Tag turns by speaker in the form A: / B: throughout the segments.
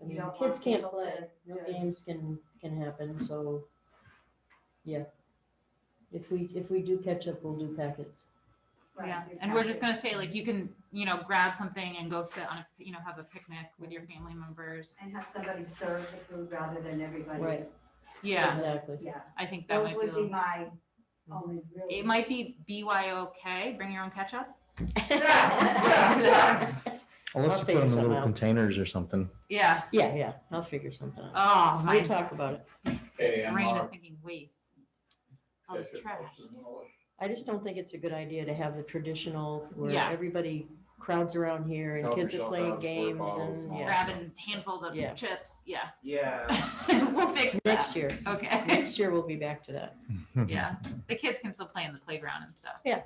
A: don't want
B: Kids can't
A: people
B: play,
A: to-
B: no
A: to-
B: games can, can happen, so, yeah. If we, if we do catch up, we'll do packets.
A: right,
C: Yeah,
A: do
C: and we're just
A: packets.
C: gonna say like you can, you know, grab something and go sit on a, you know, have a picnic with your family members.
A: And have somebody serve the food rather than everybody.
B: Right.
C: Yeah,
B: Exactly.
A: Yeah,
C: I think that
A: those
C: might
A: would be
C: be.
A: my only real.
C: It might be BYOK, bring your own ketchup.
B: Yeah, I'll
D: Unless you put
B: figure
D: them in
B: something
D: little
B: out.
D: containers or something.
C: Yeah.
B: yeah, I'll figure something out.
C: Oh, my
B: We'll talk about it.
E: Hey, I'm
C: brain is
E: Mark.
C: thinking waste. All this
E: Yes,
C: trash.
E: yes, yes.
B: I just don't think it's a good idea to have the traditional where
C: Yeah.
B: everybody crowds around here and
E: Help
B: kids are
E: yourself
B: playing
E: out, squirt
B: games
E: bottles
B: and,
E: and all
B: yeah.
E: that.
C: Grabbing handfuls of
B: Yeah.
C: chips. Yeah.
F: Yeah.
C: We'll fix that.
B: Next year,
C: Okay.
B: next year we'll be back to that.
C: Yeah. The kids can still play in the playground and stuff.
B: Yeah.
C: Okay.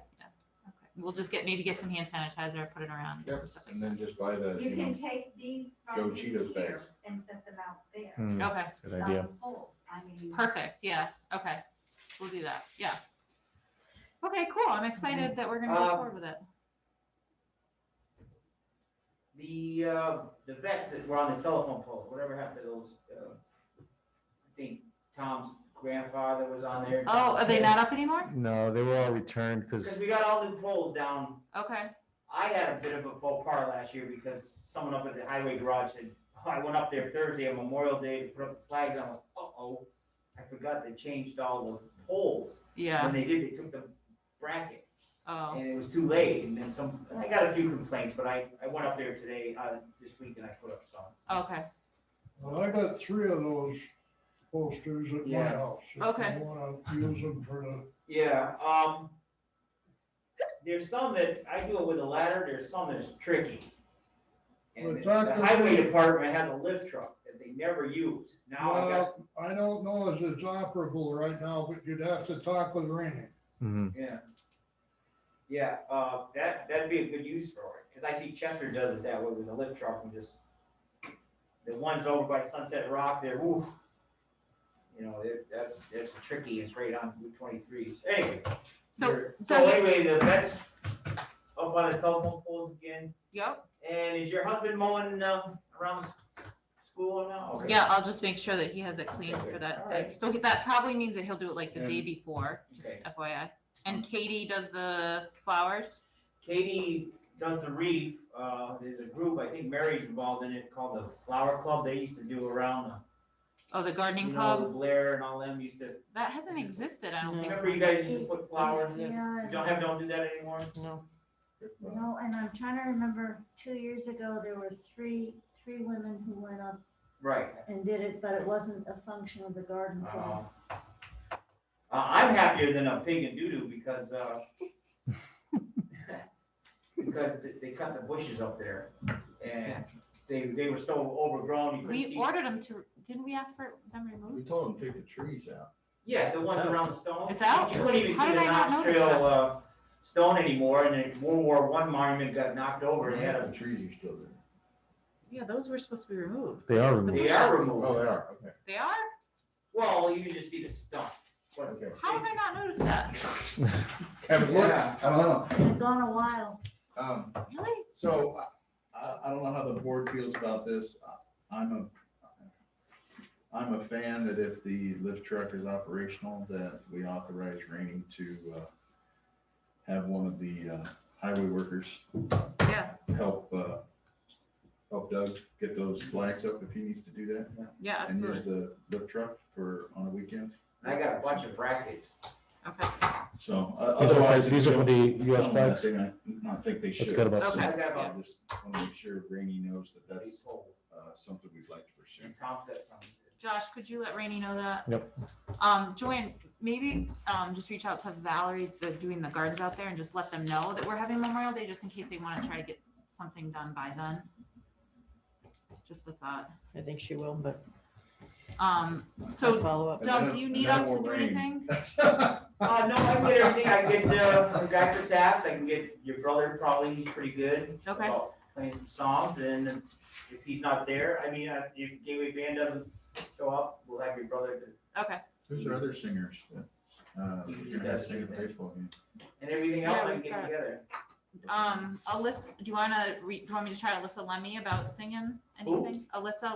C: We'll just get, maybe get some hand sanitizer, put it around
E: Yep,
C: stuff like
E: And then just buy the,
A: You
E: you
A: can
E: know,
A: take these
E: Go
A: from here
E: Cheetos bags.
A: and set them out there.
D: Hmm,
C: that. Okay.
D: Good idea.
A: on poles. I mean.
C: Perfect, yeah, okay, we'll do that, yeah. Okay, cool, I'm excited that we're gonna go
F: Um,
C: forward with it.
F: The, uh, the vets that were on the telephone poles, whatever happened to those, uh, I think Tom's grandfather was on there.
C: Oh, are they not up anymore?
D: No, they were all returned
F: Because
D: because
F: we got all new poles down.
C: Okay,
F: I had a bit of a faux pas last year because someone up at the highway garage said, oh, I went up there Thursday on Memorial Day to put up the flags. I was, uh-oh, I forgot they changed all the poles.
C: yeah,
F: When they did, they took the bracket.
C: oh,
F: and it was too late, and then some, I got a few complaints, but I, I went up there today, uh, this week, and I put up some.
C: okay,
G: Well, I got three of those posters at my
F: Yeah.
G: house. if you
C: Okay.
G: Wanna use them for the
F: Yeah, um, there's some that, I do it with a ladder, there's some that's tricky.
G: Well,
F: And the-
G: Dr.
F: the highway department has a lift truck that they never use, now I got,
G: Well, I don't know if it's operable right now, but you'd have to talk with Rainey.
D: mm-hmm,
F: yeah. Yeah, uh, that, that'd be a good use for it, cause I see Chester does it that way with a lift truck and just, the ones over by Sunset Rock, they're, woo. You know, it, that's, that's tricky, it's right on Route twenty-three, anyway.
C: so,
F: Sure.
C: so
F: So
C: you-
F: anyway, the vet's up on the telephone poles again,
C: yep,
F: and is your husband mowing, um, around s- school now? Okay.
C: yeah, I'll just make sure that he has it clean for that day,
F: Alright.
C: so that probably means that he'll do it like the day
E: And-
C: before, just
F: Okay.
C: FYI. And Katie does the flowers,
F: Katie does the reef, uh, there's a group, I think Mary's involved in it, called the Flower Club, they used to do around
C: oh, the
F: the, you
C: gardening
F: know,
C: club,
F: Blair and all them used to,
C: that hasn't existed, I don't
B: No.
C: think.
F: remember you guys used to put flowers, you
H: Yeah,
F: don't have, don't do that anymore?
B: No,
H: no, and I'm trying to remember, two years ago, there were three, three women who went up
F: Right.
H: and did it, but it wasn't a function of the garden club.
F: Uh, I'm happier than a pig in doo-doo because, uh, because th- they cut the bushes up there and they, they were so overgrown, you couldn't
C: We
F: see.
C: ordered them to, didn't we ask for them removed?
E: we told them to take the trees out.
F: Yeah, the ones around the stone.
C: It's out?
F: You couldn't even see
C: How
F: the
C: did I not
F: Knox
C: notice
F: Trail,
C: that?
F: uh, stone anymore and then World War One monument got knocked over and they had
E: The
F: a,
E: trees are still there.
C: Yeah, those were supposed to be removed.
D: they are removed.
F: they are
E: Oh, they
F: removed.
E: are, okay.
C: They are?
F: Well, you can just see the stump. but
E: Okay.
C: How have I not noticed that?
E: Haven't looked,
F: Yeah.
E: I don't know.
H: It's gone a while.
E: Um,
C: Really?
E: so I- I, I don't know how the board feels about this. I'm a, I'm a fan that if the lift truck is operational, that we authorize Rainey to, uh, have one of the, uh, highway workers
C: Yeah,
E: help, uh, help Doug get those flags up if he needs to do that.
C: yeah,
E: and
C: absolutely.
E: use the lift truck for, on a weekend.
F: I got a bunch of brackets.
C: Okay,
E: So. uh,
D: These are
E: otherwise,
D: for, these are for the US
E: Tell them that
D: flags.
E: they not- Not think they should.
D: That's good about
C: Okay.
E: So,
F: I got
E: I
F: about
E: just want to make sure Rainey knows that
F: thirty
E: that's
F: poles.
E: uh, something we'd like to pursue.
F: And Tom's got some.
C: Josh, could you let Rainey know that?
D: Yep.
C: Um, Joanne, maybe, um, just reach out to Valerie, the, doing the gardens out there and just let them know that we're having Memorial Day, just in case they wanna try to get something done by then. Just a thought.
B: I think she will, but
C: Um,
B: I'll
C: so
B: follow up.
C: Doug, do you need us to do anything?
F: Uh, no, I can get everything. I can get, uh, Dr. Taps, I can get your brother, probably, he's pretty good.
C: Okay.
F: about Playing some songs, and if he's not there, I mean, uh, if Gateway Band doesn't show up, we'll have your brother. to-
C: Okay,
E: Who's our other singers that, uh, we're gonna have sing at the baseball game?
F: And everything else
C: Yeah,
F: I can
C: we've
F: get
C: got-
F: together.
C: um, Alyssa, do you wanna, re- do you want me to try Alyssa Lemmy about singing anything? Alyssa